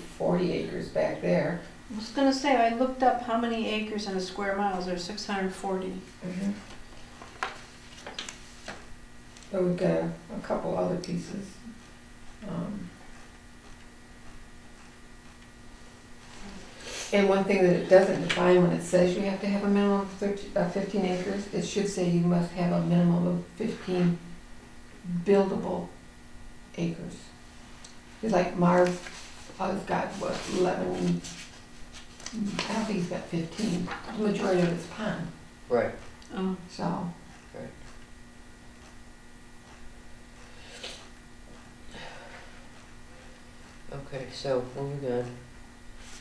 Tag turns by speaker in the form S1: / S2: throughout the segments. S1: forty acres back there.
S2: I was gonna say, I looked up how many acres in a square mile, there's six hundred and forty.
S1: But we've got a a couple other pieces. Um, And one thing that it doesn't define when it says you have to have a minimum of thirteen, uh, fifteen acres, it should say you must have a minimum of fifteen buildable acres. It's like Marv, uh, has got what, eleven, I don't think he's got fifteen, the majority of it's pond.
S3: Right,
S2: Oh,
S1: So.
S3: Right. okay, so moving on.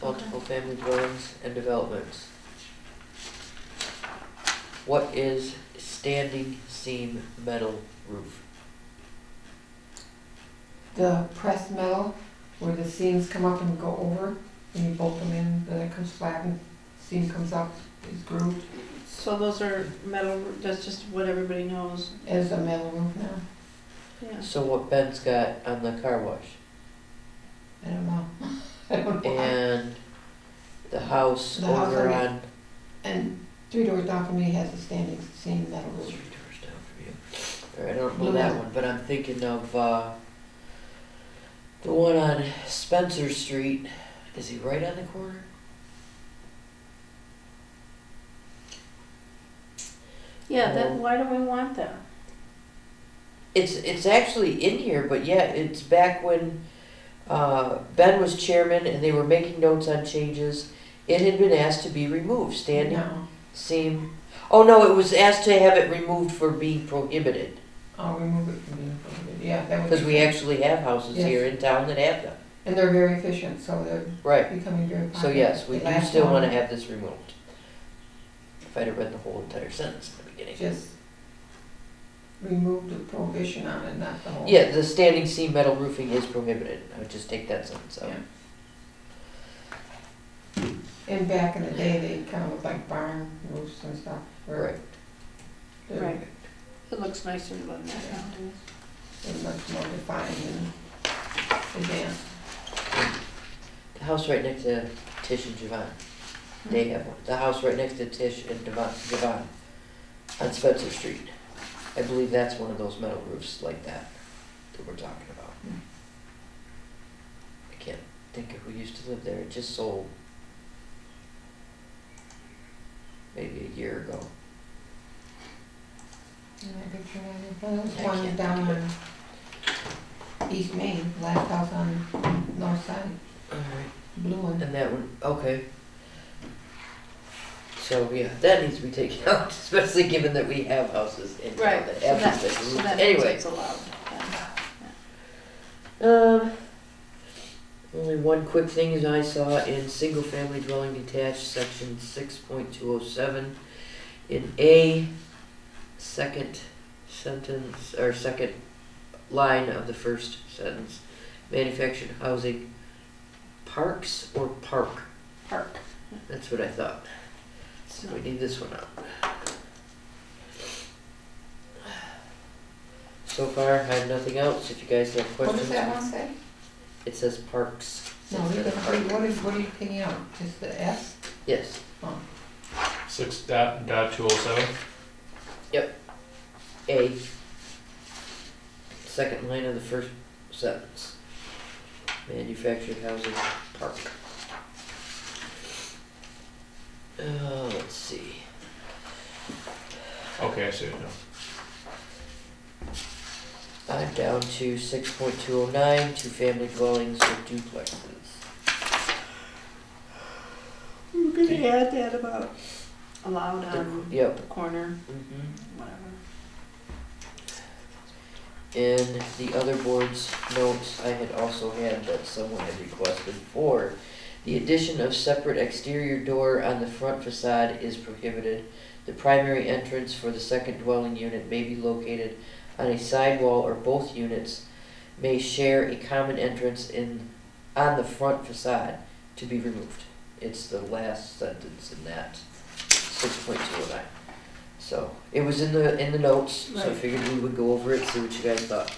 S3: Multiple family dwellings and developments. What is standing seam metal roof?
S1: The pressed metal, where the seams come up and go over, and you bolt them in, then it comes flat and seam comes up, is grooved,
S2: so those are metal, that's just what everybody knows,
S1: as a metal roof now.
S2: yeah.
S3: So what Ben's got on the car wash
S1: I don't know. I don't know.
S3: and the house
S1: The house
S3: over
S1: on-
S3: on.
S1: And three doors down from me has a standing seam metal
S3: Three doors
S1: roof.
S3: down from you. All right, I don't know that one, but I'm thinking of, uh, the one on Spencer Street. Is he right on the corner?
S2: Yeah, that, why do we want that?
S3: It's it's actually in here, but yeah, it's back when uh, Ben was chairman and they were making notes on changes. It had been asked to be removed, standing
S1: No,
S3: seam. Oh no, it was asked to have it removed for being prohibited
S1: I'll remove it from you, yeah, that would.
S3: because
S1: be
S3: we
S1: fine.
S3: actually have houses
S1: Yes.
S3: here in town that have them.
S1: And they're very efficient, so they're
S3: Right.
S1: becoming very popular.
S3: So yes, we
S1: They
S3: do
S1: last
S3: still want to
S1: long.
S3: have this removed. If I'd have read the whole entire sentence in the beginning.
S1: Just remove the prohibition on it, not the whole.
S3: Yeah, the standing seam metal roofing is prohibited. I would just take that sentence out.
S1: Yeah. And back in the day, they kind of looked like barn roofs and stuff. or-
S3: Right.
S1: They're-
S2: Right. It looks nicer than that nowadays.
S1: They're much more defined and advanced.
S3: The house right next to Tish and Javon. They have one. The house right next to Tish and Devon, Devon on Spencer Street. I believe that's one of those metal roofs like that that we're talking about.
S1: Hmm.
S3: I can't think of who used to live there. It just sold maybe a year ago.
S1: You know, I picture that. Well,
S3: I
S1: There's one
S3: can't
S1: down
S3: think
S1: on East Main, last house on north side,
S3: All right.
S1: blue one.
S3: And that one, okay. So, yeah, that needs to be taken out, especially given that we have houses in town
S2: Right,
S3: that
S2: so that,
S3: have these
S2: so
S3: things.
S2: that means
S3: Anyway,
S2: it's allowed, yeah.
S3: um, only one quick thing is I saw in single-family dwelling detached, section six point two oh seven, in A, second sentence, or second line of the first sentence, manufactured housing, parks or park?
S2: park.
S3: That's what I thought.
S2: It's
S3: So
S2: not-
S3: we need this one out. So far, I have nothing else. If you guys have
S1: What does
S3: questions,
S1: that one say?
S3: it says parks.
S1: No, we
S3: instead of
S1: got- wait,
S3: park.
S1: what is, what are you taking out? Just the S?
S3: Yes,
S4: Six dot, dot two oh seven?
S3: A. Second line of the first sentence. Manufactured housing park. Uh, let's see.
S4: Okay, I see it now.
S3: I'm down to six point two oh nine, two family dwellings or duplexes.
S2: We're gonna add that about allowed
S1: Um,
S2: on
S3: Yep.
S2: the corner,
S3: Mm-hmm.
S2: whatever.
S3: In the other board's notes, I had also had that someone had requested for the addition of separate exterior door on the front facade is prohibited. The primary entrance for the second dwelling unit may be located on a side wall or both units may share a common entrance in, on the front facade to be removed. It's the last sentence in that, six point two oh nine. So, it was in the, in the notes, so I
S2: Right.
S3: figured we would go over it, see what you guys thought.